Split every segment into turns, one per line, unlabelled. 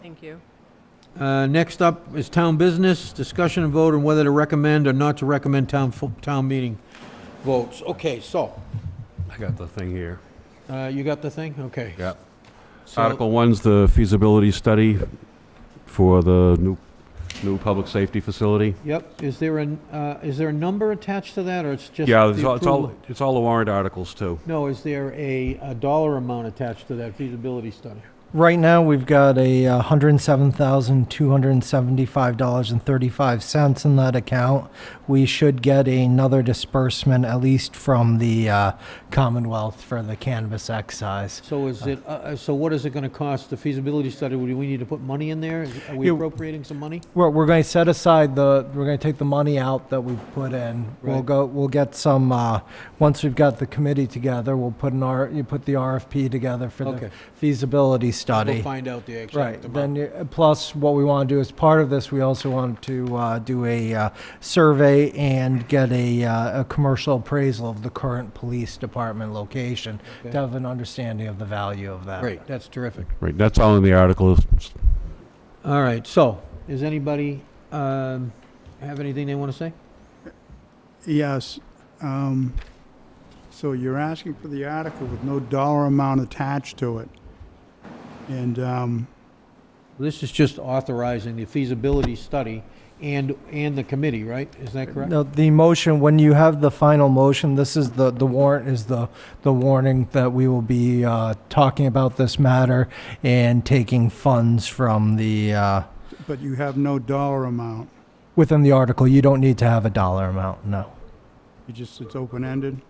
Thank you.
Uh, Next up is town business, discussion and vote on whether to recommend or not to recommend town, fo- town meeting votes. Okay, so,
I got the thing here.
uh, you got the thing? Okay.
Yep.
So-
Article one's the feasibility study for the new, new public safety facility.
Yep, is there an, uh, is there a number attached to that, or it's just?
Yeah,
the
it's all, it's all,
approval?
it's all the warrant articles too.
No, is there a, a dollar amount attached to that feasibility study?
Right now, we've got a uh, $107,275.35 in that account. We should get another disbursement, at least from the uh, Commonwealth for the cannabis excise.
So is it, uh, uh, so what is it gonna cost, the feasibility study, do we need to put money in there? Is- Are we
Yeah.
appropriating some money?
We're, we're going to set aside the, we're going to take the money out that we've put in. We'll
Right.
go, we'll get some, uh, once we've got the committee together, we'll put an R, you put the RFP together for
Okay.
the feasibility study.
We'll find out the
Right,
exact amount.
then, you- uh, plus, what we want to do as part of this, we also want to uh, do a uh, survey and get a, uh, a commercial appraisal of the current police department location to
Okay.
have an understanding of the value of that.
Great, that's terrific.
Right, that's all in the article.
All right, so, does anybody, um, have anything they wanna say?
Yes. um, So you're asking for the article with no dollar amount attached to it. And um,
This is just authorizing the feasibility study and, and the committee, right? Is that correct?
Now, the motion, when you have the final motion, this is the, the warrant is the, the warning that we will be uh, talking about this matter and taking funds from the, uh,
but you have no dollar amount.
within the article, you don't need to have a dollar amount, no.
You just, it's open-ended.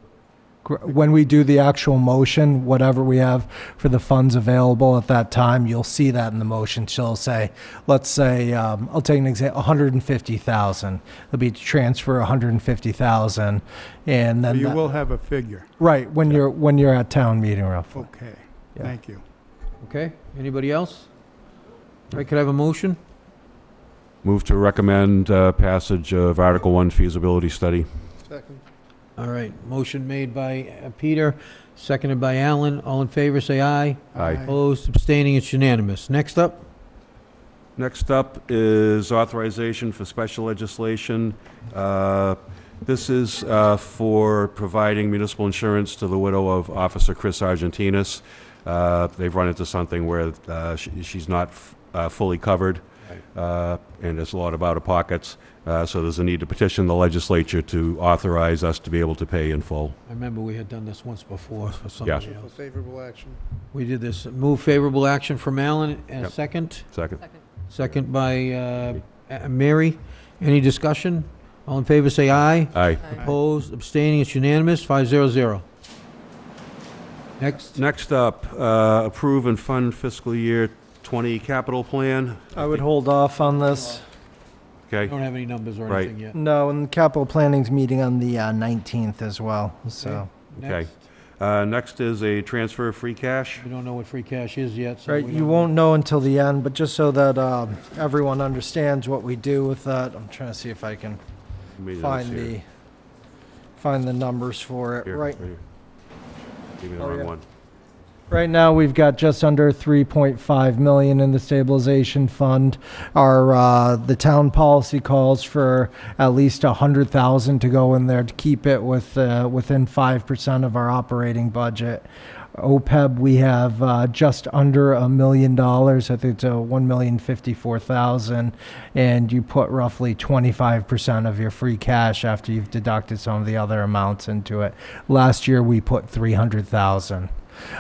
Gr- When we do the actual motion, whatever we have for the funds available at that time, you'll see that in the motion. She'll say, let's say, um, I'll take an example, 150,000. It'll be to transfer 150,000, and
But
then
you
that-
will have a figure.
right when you're when you're at town meeting, roughly.
Okay,
Yeah.
thank you.
Okay, anybody else? All right, could I have a motion?
Move to recommend uh, passage of Article one feasibility study.
Second.
All right, motion made by uh, Peter, seconded by Alan. All in favor, say aye.
Aye.
Opposed, abstaining, it's unanimous. Next up,
Next up is authorization for special legislation. Uh, This is uh, for providing municipal insurance to the widow of Officer Chris Argentinas. Uh, They've run into something where uh, she- she's not f- uh, fully covered, uh, and there's a lot of out-of-pockets, Uh, so there's a need to petition the legislature to authorize us to be able to pay in full.
I remember we had done this once before for somebody else.
favorable action.
We did this, move favorable action from Alan, and a
Yep.
second,
Second.
second by uh, A- Mary. Any discussion? All in favor, say aye.
Aye.
Opposed, abstaining, it's unanimous, five zero zero. Next,
Next up, uh, approve and fund fiscal year 20 capital plan.
I would hold off on this.
we
Okay?
don't have any numbers or
Right.
anything yet.
No, and capital planning's meeting on the uh, 19th as well. So.
Okay.
Okay.
Next,
Uh, Next is a transfer of free cash.
we don't know what free cash is yet, so
Right,
we
you
don't-
won't know until the end, but just so that um, everyone understands what we do with that, I'm trying to see if I can
Maybe that's
find
here.
the, find the numbers for it.
Here,
Right,
here. Give me the
Oh,
wrong
yeah.
one.
right now, we've got just under 3.5 million in the stabilization fund. Our, uh, the town policy calls for at least 100,000 to go in there to keep it with, uh, within 5% of our operating budget. OPEB, E we have uh, just under a million dollars. I think it's uh, one million fifty-four thousand, and you put roughly twenty-five percent of your free cash after you've deducted some of the other amounts into it. Last year, we put three hundred thousand.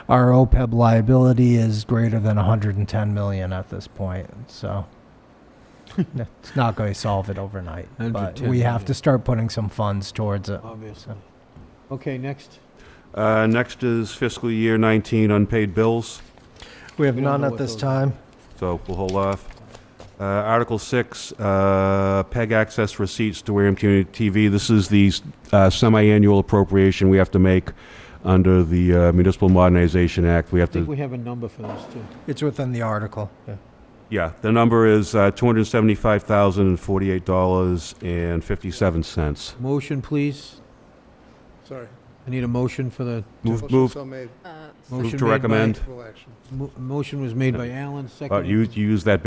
Our OPEB liability is greater than one hundred and ten million at this point, so. it's not going to solve it overnight, but
110
we have
million.
to start putting some funds towards it.
Obviously. Okay, next.
Uh, Next is fiscal year 19 unpaid bills,
We have
We don't
none
know
at
what
this
those are.
time.
so we'll hold off. Uh, Article 6, uh, PEG access receipts to Wareham Community TV. This is the uh, semi-annual appropriation we have to make under the uh, Municipal Modernization Act. We
I
have
think
to,
we have a number for this, too.
It's within the article.
yeah, the number is uh, $275,048.57.
Motion, please.
Sorry.
I need a motion for the,
Move, move,
So made,
Uh,
Motion
move
made by-
to recommend.
full action.
mo- motion was made by Alan,
Uh,
seconded.
You you use that